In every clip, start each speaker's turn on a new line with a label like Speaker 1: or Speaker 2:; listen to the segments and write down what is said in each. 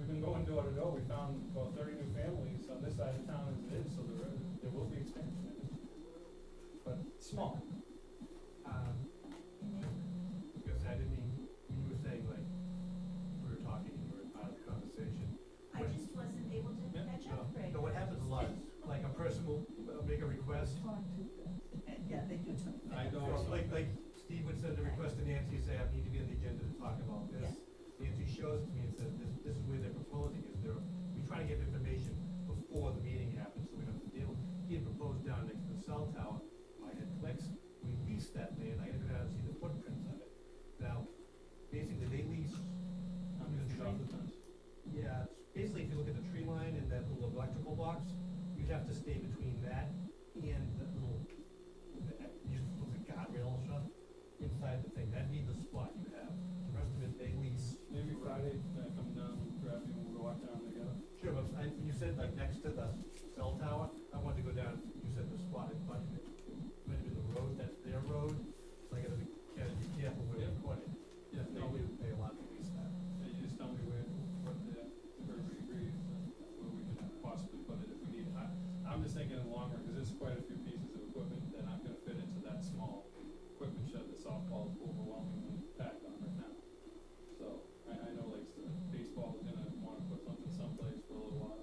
Speaker 1: go to go, we found about thirty new families on this side of town as it is, so there, is- there will be expansion. But small. Um, because I didn't, mean- you were saying like, we were talking, you were part of the conversation.
Speaker 2: I just wasn't able to
Speaker 1: Yeah,
Speaker 2: catch up,
Speaker 1: no.
Speaker 2: Greg.
Speaker 1: No, what happens a lot, is, like a person will uh, make a request,
Speaker 2: And, Yeah, they do. talk
Speaker 1: I
Speaker 2: about
Speaker 1: know,
Speaker 2: it.
Speaker 1: it's like, like Steve would send a request to Nancy, and say, I need to be on the agenda to talk about this. Nancy shows it to me and says, this, this is where they're proposing, is there, we try to get information before the meeting happens, so we don't have to deal. with it. He had proposed down next to the cell tower, I had clicks, we leased that land, I had to go down and see the footprints of it. Now, basically, they lease. I'm gonna drop the fence. Yeah, it's basically, if you look at the tree line and that little electrical box, you'd have to stay between that and that little used to put the guardrail shut inside the thing, that'd be the spot you have, the rest of it they lease.
Speaker 3: Maybe Friday, I come down, grab you, and we'll walk down together.
Speaker 1: Sure, but I, you said like next to the cell tower, I wanted to go down, you said the spot in front of it, might have been the road, that's their road, so I gotta be, gotta be careful where you
Speaker 3: Yeah.
Speaker 1: put it.
Speaker 3: Yeah,
Speaker 1: They
Speaker 3: no, we,
Speaker 1: do pay a lot to lease that.
Speaker 3: yeah, you just tell me where, what the, the Burberry agrees, and where we could possibly put it if we need. I, I'm just thinking in the long run, because there's quite a few pieces of equipment that aren't gonna fit into that small equipment shed that softball's overwhelmingly packed on right now. So, I, I know like the baseball is gonna wanna put something someplace for a little while,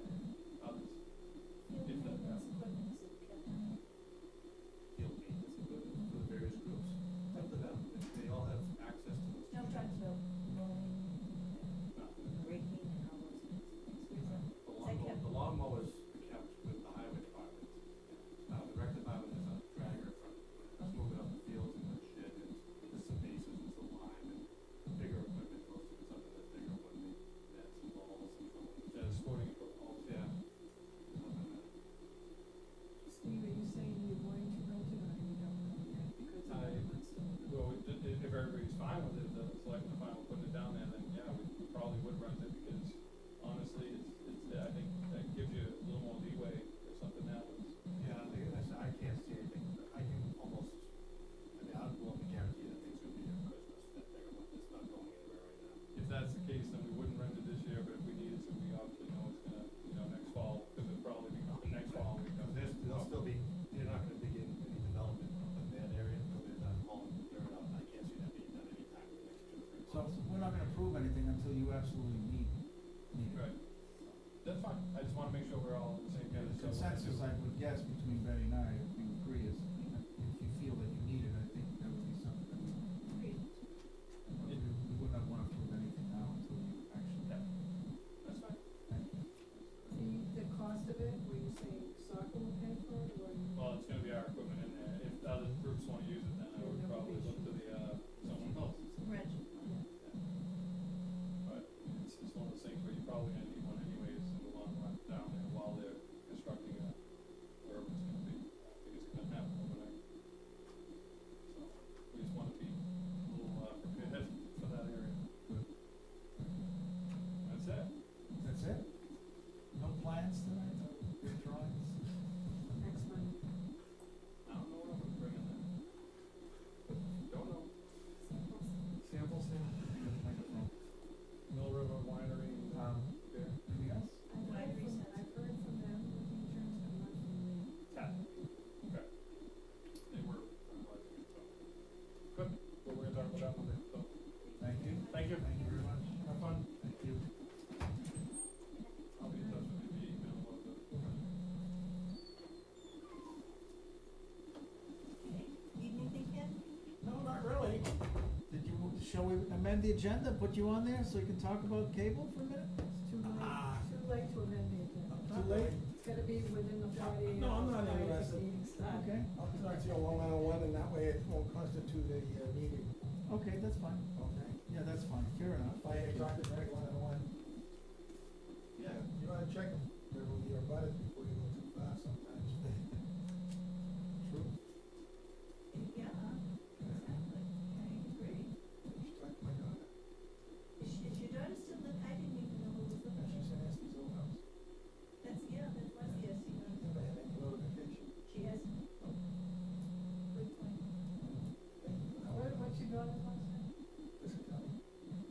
Speaker 3: and others. If that
Speaker 2: Field maintenance
Speaker 3: happens.
Speaker 2: equipment is okay.
Speaker 1: Field maintenance equipment for the various groups, up to them, if they all have access to those.
Speaker 2: No, I'm talking about mowing,
Speaker 3: Not gonna
Speaker 2: raking and all those kinds of things. There's a-
Speaker 1: The lawnmower, the lawnmower is kept with the highway department. Uh, the rec department has a dragger from, that's moving up the fields and the shit and the some bases and some lime and the bigger equipment goes to it's up to the bigger one, they, that's some balls and some,
Speaker 3: Yeah, the sporting equipment.
Speaker 1: yeah. Something like
Speaker 4: Steve, are you saying you're going to rent it or you don't know yet because of
Speaker 3: I-
Speaker 4: the monsoon?
Speaker 3: Well, we- if, if everybody's fine with it, the selectmen are fine with putting it down there, then yeah, we we probably would rent it because honestly, it's, it's, I think that gives you a little more leeway if something happens.
Speaker 1: Yeah, I think that's, I can't see anything, I can almost, I mean, I'd love to guarantee that things would be here Christmas, that they're, it's not going anywhere right now.
Speaker 3: If that's the case, then we wouldn't rent it this year, but if we needed to, we obviously know it's gonna, you know, next fall, because it'll probably be gone next fall. we
Speaker 1: Because
Speaker 3: know.
Speaker 1: there's, they'll still be, they're not gonna begin any development in that area until they're done hauling the dirt out, I can't see that being done anytime in the next two or three
Speaker 5: So
Speaker 1: months.
Speaker 5: we're not gonna prove anything until you absolutely need, need it.
Speaker 3: Right. That's fine. I just wanna make sure we're all on the same
Speaker 5: Yeah,
Speaker 3: page.
Speaker 5: the consensus, I would guess, between Betty and I, if you agree, is if you feel that you need it, I think that would be something that we,
Speaker 2: Agreed.
Speaker 5: we we would not wanna prove anything now until you actually.
Speaker 3: Yeah. That's fine.
Speaker 5: Thank you.
Speaker 4: The, the cost of it, were you saying soccer will pay for it or?
Speaker 3: Well, it's gonna be our equipment in there. If the other groups wanna use it, then I would probably look to the, uh, someone else.
Speaker 2: Reg.
Speaker 3: But it's, it's one of those things where you're probably gonna need one anyways in the long run down there while they're constructing a, wherever it's gonna be. Because uh, it's gonna happen overnight. uh, So, we just wanna be a little, uh, prepared for that area. That's it.
Speaker 5: That's it? No plans tonight, no drawings?
Speaker 4: Next Monday.
Speaker 3: I don't know what I'm gonna bring in there. Don't know.
Speaker 5: Samples
Speaker 3: Mill River Winery,
Speaker 5: Um,
Speaker 3: beer.
Speaker 5: anything else?
Speaker 4: I've
Speaker 2: Wide
Speaker 4: heard from,
Speaker 2: recess.
Speaker 4: I've heard from them, the teachers, but not from the.
Speaker 3: Tap. Okay. They were. Good. Well, we're gonna talk about that one then, so.
Speaker 5: Thank you.
Speaker 3: Thank you.
Speaker 5: Thank you very much.
Speaker 3: Have fun.
Speaker 5: Thank you.
Speaker 3: I'll be in touch with you via email about the.
Speaker 2: Okay. Need anything, Ken?
Speaker 5: No, not really. Did you, shall we amend the agenda, put you on there so you can talk about cable for a minute?
Speaker 4: It's too
Speaker 5: Ah.
Speaker 4: late, too late to amend the agenda.
Speaker 5: Too late?
Speaker 4: It's gotta be within the
Speaker 5: Yeah,
Speaker 4: forty.
Speaker 5: no, I'm not
Speaker 4: hours prior to
Speaker 5: interested.
Speaker 4: meeting start.
Speaker 5: Okay,
Speaker 6: I'll talk to you one-on-one, and that way it won't constitute a uh, meeting,
Speaker 5: okay, that's fine.
Speaker 6: okay?
Speaker 5: Yeah, that's fine, fair enough.
Speaker 6: If I had talked to Greg one-on-one,
Speaker 1: Yeah,
Speaker 6: you wanna check him?
Speaker 2: oh,